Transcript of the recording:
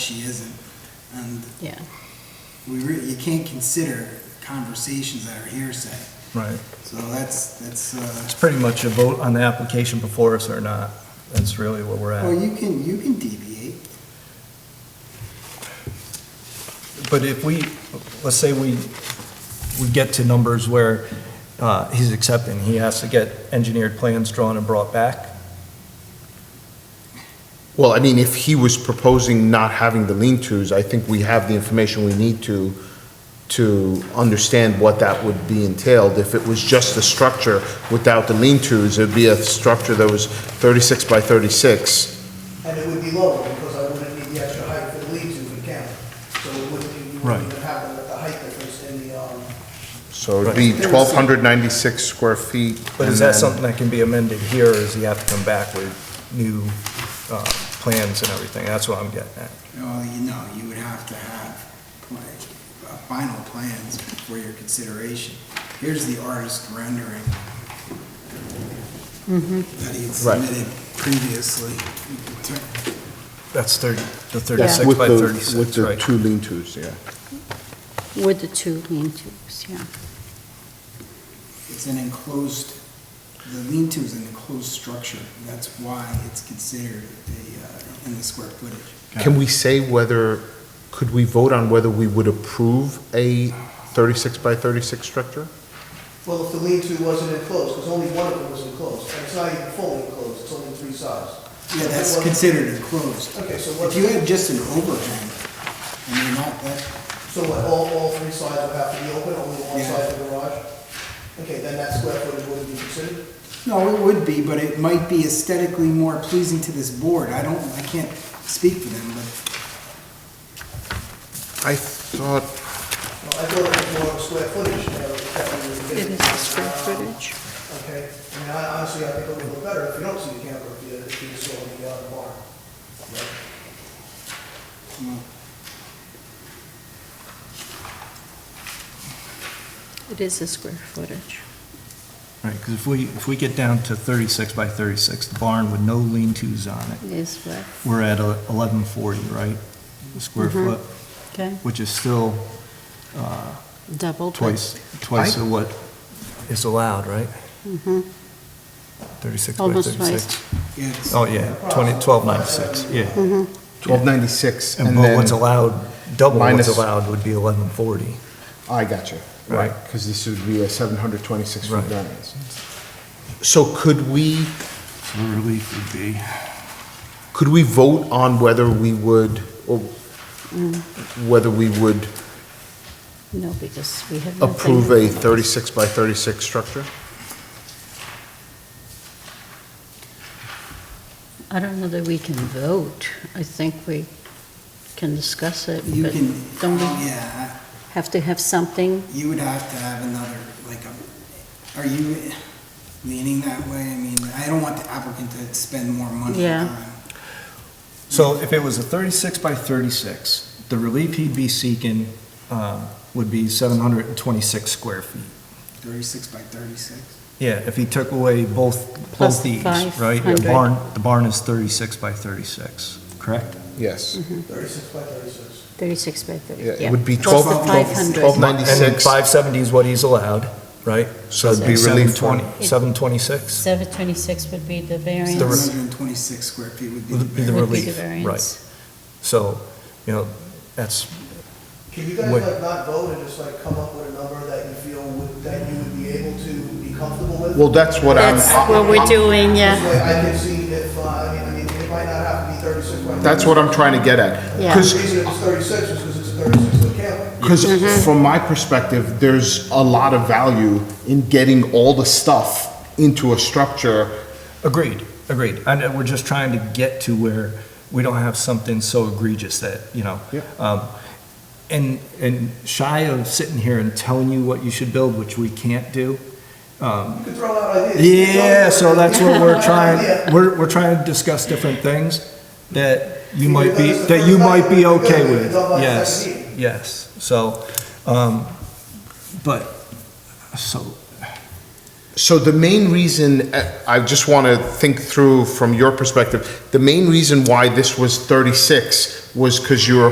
she isn't. And Yeah. we really, you can't consider conversations that are hearsay. Right. So that's, that's, It's uh, pretty much a vote on the application before us or not. That's really what we're well, at. you can, you can deviate. But if we, let's say we, we get to numbers where uh, he's accepting, he has to get engineered plans drawn and brought back. Well, I mean, if he was proposing not having the lean-tos, I think we have the information we need to, to understand what that would be entailed. If it was just the structure without the lean-tos, it'd be a structure that was 36 by 36. And it would be lower because I wouldn't need the extra height for the lead to the counter. So it wouldn't, you Right. wouldn't even have the- the height difference in the, um, So it'd be 1,296 square feet. But is and that then- something that can be amended here, or does he have to come back with new uh, plans and everything? That's what I'm getting at. Well, you know, you would have to have pla- uh, final plans for your consideration. Here's the artist rendering that he had Right. submitted previously. That's 30, the Yeah. 36 With by the- 36, With the right? two lean-tos, yeah. With the two lean-tos, yeah. It's an enclosed, the lean-to is an enclosed structure. That's why it's considered a, uh, in the square footage. Can we say whether, could we vote on whether we would approve a 36 by 36 structure? well, if the lead to wasn't enclosed, because only one of them was enclosed. And it's not even fully enclosed, it's only three sides. Yeah, If it that's wasn't- considered enclosed. Okay, so If what- you had just an overhang, I mean, not that, So what, all, all three sides would have to be open, only one Yeah. side of the garage? Okay, then that square footage wouldn't be considered? no, it would be, but it might be aesthetically more pleasing to this board. I don't, I can't speak for them, but I thought Well, I thought it was more of a square footage, you know, that we were... It is square footage. Um, Okay, I mean, I honestly, I think it'll look better if you don't see the camper, if you, if you saw the, uh, barn. It is a square footage. Right, because if we, if we get down to 36 by 36, the barn with no lean-tos on it, It is what, we're at a- 1140, right? The Square Mhm. foot, okay, which is still uh, double. but- twice, twice I- of what is allowed, right? Mhm. 36 by Almost 36. yeah, it's, Oh, yeah, 20, 1296, yeah. 1296, And and but what's then, allowed, double what's Minus- allowed would be 1140. I got you, right, Right. because this would be a 726 foot Right. variance. So could we, So the relief would be, could we vote on whether we would, or whether we would No, because we have nothing. approve a 36 by 36 structure? I don't know that we can vote. I think we can discuss it, you but can, don't we yeah, have to have something? you would have to have another, like, a- are you leaning that way? I mean, I don't want the applicant to spend more money Yeah. on So if it was a 36 by 36, the relief he'd be seeking um, would be 726 square feet. thirty-six by thirty-six. Yeah, if he took away both, Plus both these, right? 500. The barn, the barn is 36 by 36, correct? Yes. Thirty-six by thirty-six. 36 by 30, Yeah, yeah. It would be Plus 12, the 500. 1296, And 570 is what he's allowed, right? so it'd be Seven relief twenty- for, 726 726 would be the variance. The re- 126 square feet would be the would be the variance. Would be relief, the right. variance. So, you know, that's, Can you guys Wait. like not vote and just like come up with a number that you feel would, that you would be able to be comfortable with? well, that's what I'm, That's what we're doing, This yeah. way I can see if, uh, I mean, I mean, it might not have to be thirty-six by. that's what I'm trying to get at. Yeah. Because The reason it's thirty-six is because it's a thirty-six foot camper. Mm-hmm. Because from my perspective, there's a lot of value in getting all the stuff into a structure. agreed, agreed. And uh, we're just trying to get to where we don't have something so egregious that, you know. Yeah. um, And, and shy of sitting here and telling you what you should build, which we can't do, You could throw out ideas. Yeah, so that's what we're Yeah. trying, we're, we're trying to discuss different things that you You've might done be, this the that you first might time, be you're good, okay you've with. done like Yes, 17. yes. So, um, but, so So the main reason, uh, I just want to think through from your perspective, the main reason why this was 36 was because you were